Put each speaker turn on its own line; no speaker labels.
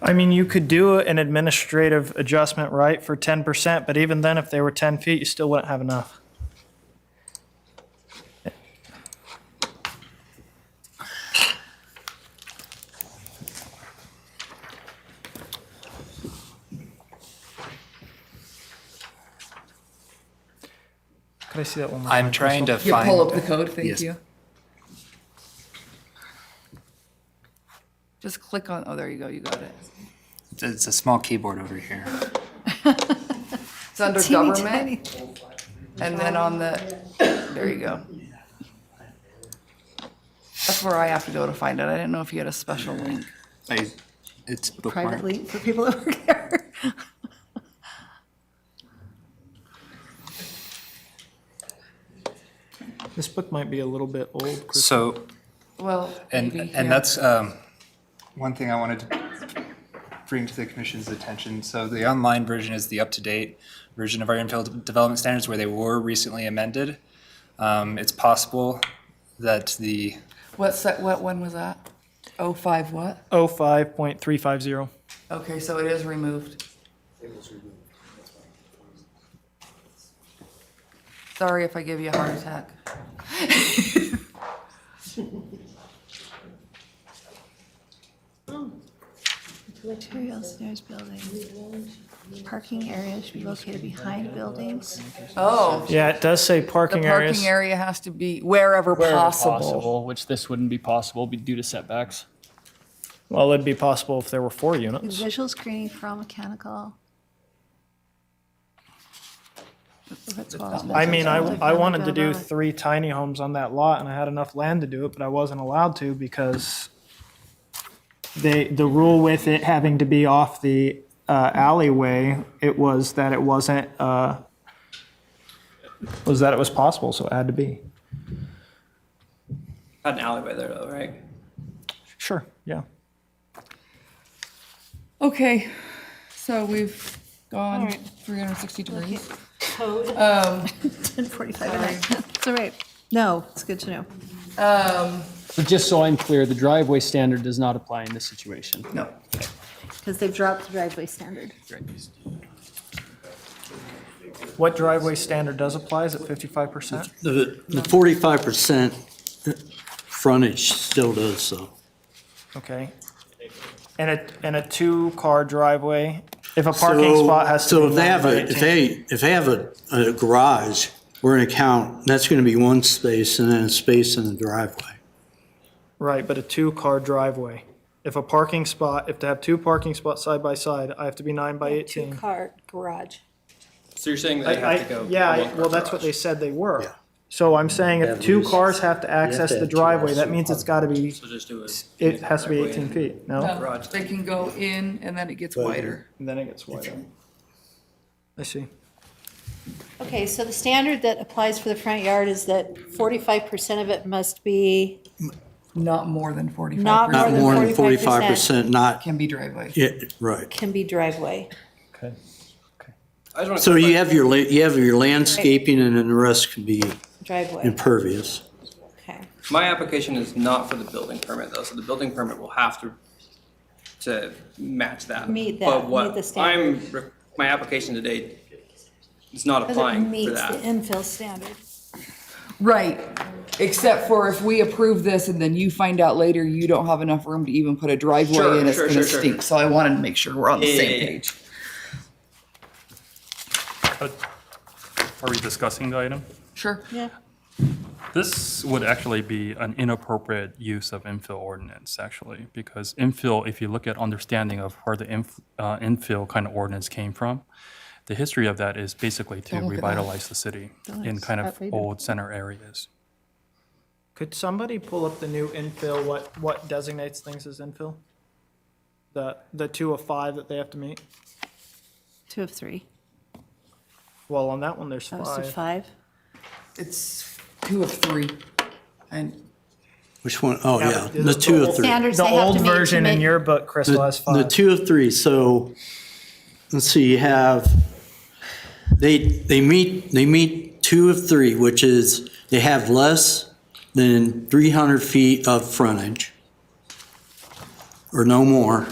I mean, you could do an administrative adjustment, right, for 10%, but even then, if they were 10 feet, you still wouldn't have enough. Could I see that one more?
I'm trying to
Yeah, Uh, pull up
find,
the code, thank
Yes.
you. Just click on, oh, there you go, you got it.
it's a small keyboard over here.
It's under government. And then on the, there you go. That's where I have to go to find it. I didn't know if you had a special link.
I, it's bookmarked.
privately for people that work there.
This book might be a little bit old, Chris.
So,
Well,
and,
maybe,
and
yeah.
that's, um, one thing I wanted to bring to the commission's attention. So the online version is the up-to-date version of our infill development standards where they were recently amended. Um, it's possible that the,
What, se- what, when was that? Oh, five what?
05.350.
Okay, so it is removed. Sorry if I give you a heart attack.
Materials, there's buildings. Parking areas should be located behind buildings.
Oh.
Yeah, it does say
The
parking areas.
parking area has to be wherever
wherever
possible.
which this wouldn't be possible be- due to setbacks.
Well, it'd be possible if there were four units.
Visual screening for all mechanical. That's what was
I mean, I,
mentioned.
I wanted to do three tiny homes on that lot and I had enough land to do it, but I wasn't allowed to because they, the rule with it having to be off the uh, alleyway, it was that it wasn't, uh, was that it was possible, so it had to be.
Got an alleyway there though, right?
Sure, yeah.
Okay, so we've gone 360 degrees.
Ten forty-five a night. It's all right. No, it's good to know.
So just so I'm clear, the driveway standard does not apply in this situation.
No.
Because they've dropped the driveway standard.
What driveway standard does apply? Is it fifty-five percent?
The the 45% frontage still does so.
Okay. And a, and a two-car driveway, if a parking spot has to be.
So if they
more
have
than
a,
18
if they, if they have a, a garage, we're going to count, that's going to be one space and then a space in the driveway.
Right, but a two-car driveway. If a parking spot, if to have two parking spots side by side, I have to be nine by eighteen.
Two-car garage.
So you're saying
I,
they have to
I,
go.
yeah,
one
I-
car
well, that's what
garage.
they said they were.
Yeah.
So I'm saying if
At
two
least.
cars have to access
have
the
to
driveway,
access
that
the
means it's gotta be,
So just do it.
it has to be eighteen feet, no?
Garage.
They can go in and then it gets wider.
And then it gets wider. I see.
Okay, so the standard that applies for the front yard is that 45% of it must be,
Not more than 45.
Not
Not more than 45%,
45%,
not,
Can be driveway.
yeah, right.
can be driveway.
Okay.
I just wanna
So
clarify.
you have your, la- you have your landscaping and then the rest can be
Driveway,
impervious.
okay.
My application is not for the building permit though, so the building permit will have to, to match that.
Meet that,
But
meet
what
the standard.
I'm, re- my application today is not
Because it
applying for
meets the
that.
infill standard.
Right, except for if we approve this and then you find out later you don't have enough room to even put a
Sure,
driveway in, it's
sure,
gonna
sure, sure.
stink. So I wanted to make sure we're on the
Yeah, yeah,
same
yeah.
page.
Are we discussing the item?
Sure.
Yeah.
This would actually be an inappropriate use of infill ordinance, actually, because infill, if you look at understanding of where the inf- uh, infill kind of ordinance came from, the history of that is basically to
Don't look at that.
revitalize the city in kind of
outdated.
old center areas.
Could somebody pull up the new infill, what, what designates things as infill? The, the two of five that they have to meet?
Two of three.
Well, on that one, there's
That was to
five.
five.
It's two of three. And
Which one? Oh,
Yeah,
yeah,
but
the
the
two
whole-
of three.
Standards
The
they have to
old
meet to
version in
make-
your book, Chris,
The-
has five.
The two of three, so, let's see, you have, they, they meet, they meet two of three, which is, they have less than 300 feet of frontage, or no more,